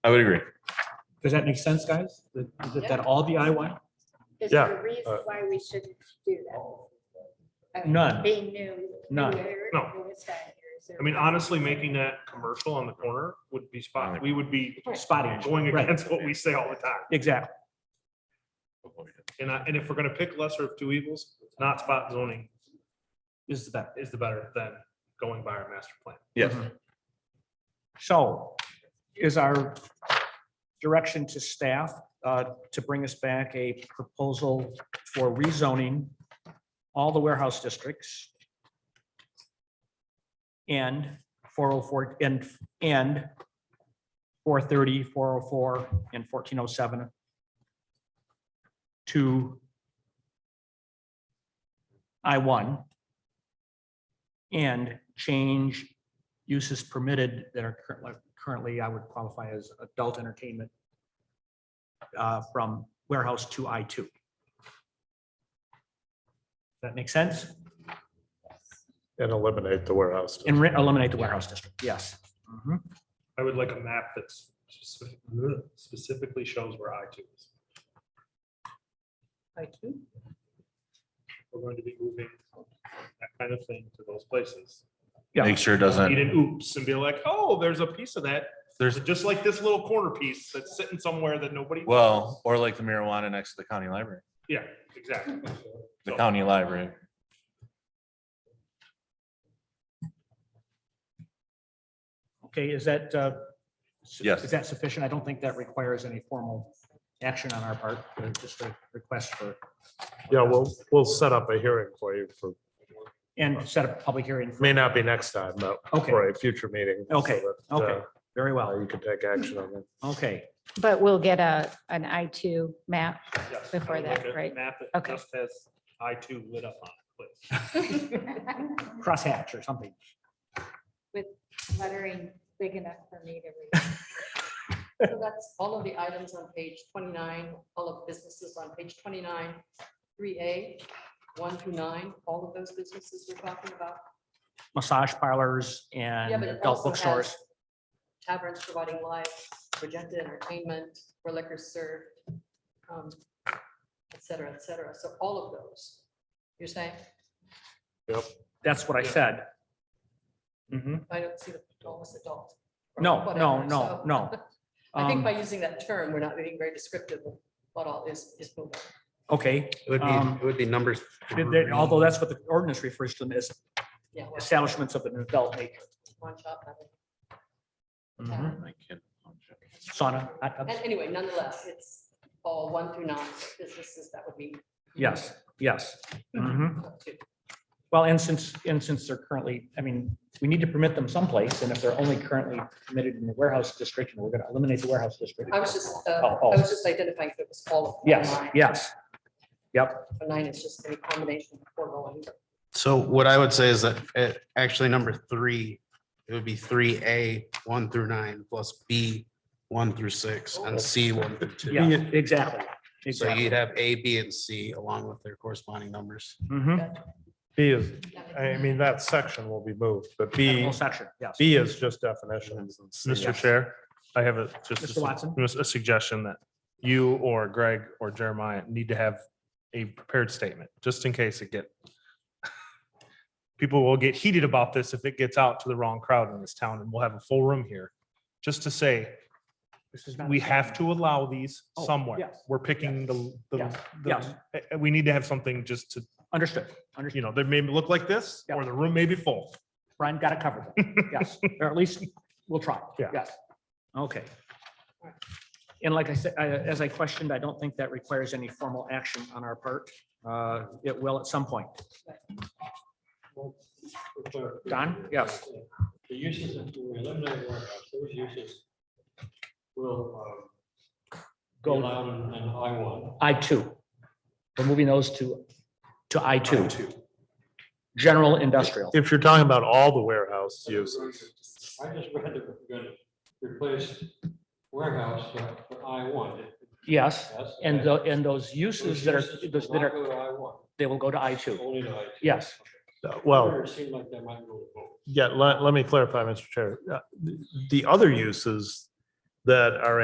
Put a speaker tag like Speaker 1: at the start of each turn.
Speaker 1: I would agree.
Speaker 2: Does that make sense, guys? That, that- that all DIY?
Speaker 3: Is
Speaker 4: Yeah,
Speaker 3: there a reason
Speaker 4: uh,
Speaker 3: why we shouldn't do that? I mean,
Speaker 2: Oh. None.
Speaker 3: Being new.
Speaker 2: None.
Speaker 3: newer,
Speaker 4: No.
Speaker 3: newest guy here, is there-
Speaker 4: I mean, honestly, making that commercial on the corner would be spot, we would be
Speaker 2: Spotting,
Speaker 4: going
Speaker 2: Right.
Speaker 4: against what we say all the time.
Speaker 2: exactly.
Speaker 4: And I, and if we're gonna pick lesser of two evils, not spot zoning
Speaker 2: This is the best.
Speaker 4: is the better than going by our master plan.
Speaker 1: Yes.
Speaker 2: So is our direction to staff uh, to bring us back a proposal for rezoning all the warehouse districts and 404 and, and 430, 404, and 1407 to I-1 and change uses permitted that are currently, currently I would qualify as adult entertainment uh, from warehouse to I two. That makes sense?
Speaker 5: And eliminate the warehouse.
Speaker 2: And re- eliminate the warehouse district, yes.
Speaker 5: Mm-hmm.
Speaker 2: Mhm.
Speaker 4: I would like a map that's specific- specifically shows where I two is.
Speaker 2: I two?
Speaker 4: We're going to be moving that kind of thing to those places.
Speaker 2: Yeah.
Speaker 1: Make sure it
Speaker 4: Eat
Speaker 1: doesn't,
Speaker 4: an oops and be like, oh, there's a piece of that.
Speaker 1: there's,
Speaker 4: There's just like this little corner piece that's sitting somewhere that nobody.
Speaker 1: well, or like the marijuana next to the county library,
Speaker 4: Yeah, exactly.
Speaker 1: the
Speaker 4: So-
Speaker 1: county library.
Speaker 2: Okay, is that, uh, su-
Speaker 1: Yes.
Speaker 2: Is that sufficient? I don't think that requires any formal action on our part, uh, just a request for,
Speaker 5: Yeah, we'll, we'll set up a hearing for you for,
Speaker 2: and set up a public hearing.
Speaker 5: may not be next time, but
Speaker 2: Okay,
Speaker 5: for a future meeting. so
Speaker 2: Okay,
Speaker 5: that, uh,
Speaker 2: okay. very well,
Speaker 5: You can take action on it.
Speaker 2: okay.
Speaker 3: But we'll get a, an I two map.
Speaker 4: Yes,
Speaker 3: Before
Speaker 4: I would like
Speaker 3: that,
Speaker 4: a
Speaker 3: right.
Speaker 4: Map that
Speaker 3: Okay.
Speaker 4: just has I two lit up on it, please.
Speaker 2: Crosshatch or something.
Speaker 3: Lettering big enough for me to read.
Speaker 6: So that's all of the items on page twenty-nine, all of businesses on page twenty-nine, three A, one through nine, all of those businesses we're talking about.
Speaker 2: Massage parlors
Speaker 6: Yeah,
Speaker 2: and
Speaker 6: but it
Speaker 2: adult
Speaker 6: also
Speaker 2: bookstores.
Speaker 6: has Taverns providing live, projected entertainment, where liquor served, um, et cetera, et cetera. So all of those, you're saying,
Speaker 2: That's what I
Speaker 4: Yeah.
Speaker 2: said.
Speaker 6: I don't see the almost adult. or
Speaker 2: No, no,
Speaker 6: whatever,
Speaker 2: no,
Speaker 6: so
Speaker 2: no.
Speaker 6: I think
Speaker 2: Um,
Speaker 6: by using that term, we're not being very descriptive of what all is, is moving.
Speaker 2: Okay,
Speaker 7: It would be,
Speaker 2: Um,
Speaker 7: it would be numbers.
Speaker 2: th- th- although that's what the ordinance refers to them as
Speaker 6: Yeah, well,
Speaker 2: establishments of an adult nature.
Speaker 6: One shop, I mean.
Speaker 2: Mhm. Sauna, hot tubs.
Speaker 6: And anyway, nonetheless, it's all one through nine businesses that would be
Speaker 2: yes, yes.
Speaker 6: Mm-hmm.
Speaker 2: Mhm.
Speaker 6: up to.
Speaker 2: Well, and since, and since they're currently, I mean, we need to permit them someplace, and if they're only currently permitted in the warehouse district, and we're gonna eliminate the warehouse district.
Speaker 6: I was just, uh,
Speaker 2: Oh, oh.
Speaker 6: I was just identifying if it was all. of
Speaker 2: Yes,
Speaker 6: nine.
Speaker 2: yes. Yep,
Speaker 6: So Nine is just a combination of four going.
Speaker 7: So what I would say is that uh, actually number three, it would be three A, one through nine, plus B, one through six, and C, one through two.
Speaker 2: yeah, exactly.
Speaker 7: So
Speaker 2: Exactly.
Speaker 7: you'd have A, B, and C along with their corresponding numbers.
Speaker 2: Mhm.
Speaker 5: B is, I mean, that section will be moved, but B,
Speaker 2: Whole section, yes.
Speaker 5: B is just definitions. and C
Speaker 4: Mr.
Speaker 5: is-
Speaker 4: Chair, I have a, just a
Speaker 2: Mr. Watson?
Speaker 4: sug- a suggestion that you or Greg or Jeremiah need to have a prepared statement, just in case it get. People will get heated about this if it gets out to the wrong crowd in this town, and we'll have a full room here, just to say,
Speaker 2: This is not
Speaker 4: we
Speaker 2: the
Speaker 4: have
Speaker 2: same.
Speaker 4: to allow these
Speaker 2: Oh,
Speaker 4: somewhere.
Speaker 2: yes,
Speaker 4: We're picking the, the,
Speaker 2: yes, yes.
Speaker 4: the- eh, eh, we need to have something just to,
Speaker 2: Understood, understood.
Speaker 4: you know, they may look like this, or the room may be full.
Speaker 2: Brian got it covered. Yes, or at least we'll try.
Speaker 4: Yeah.
Speaker 2: Yes. Okay. And like I said, I, as I questioned, I don't think that requires any formal action on our part. Uh, it will at some point. Don? Yes.
Speaker 8: The uses, that we eliminate warehouse, those uses will um, be
Speaker 2: Go.
Speaker 8: allowed in in I one.
Speaker 2: I two. We're moving those to, to I two. General industrial.
Speaker 5: If you're talking about all the warehouse use,
Speaker 8: I just read that we're gonna replace warehouse for for I one.
Speaker 2: Yes. And the, and those uses that are, those that are,
Speaker 8: I one,
Speaker 2: they will go to I two.
Speaker 8: only to I. two.
Speaker 2: Yes.
Speaker 5: uh, well.
Speaker 8: It seemed like that might go to both.
Speaker 5: Yeah, let, let me clarify, Mr. Chair. Uh, The the other uses
Speaker 4: that are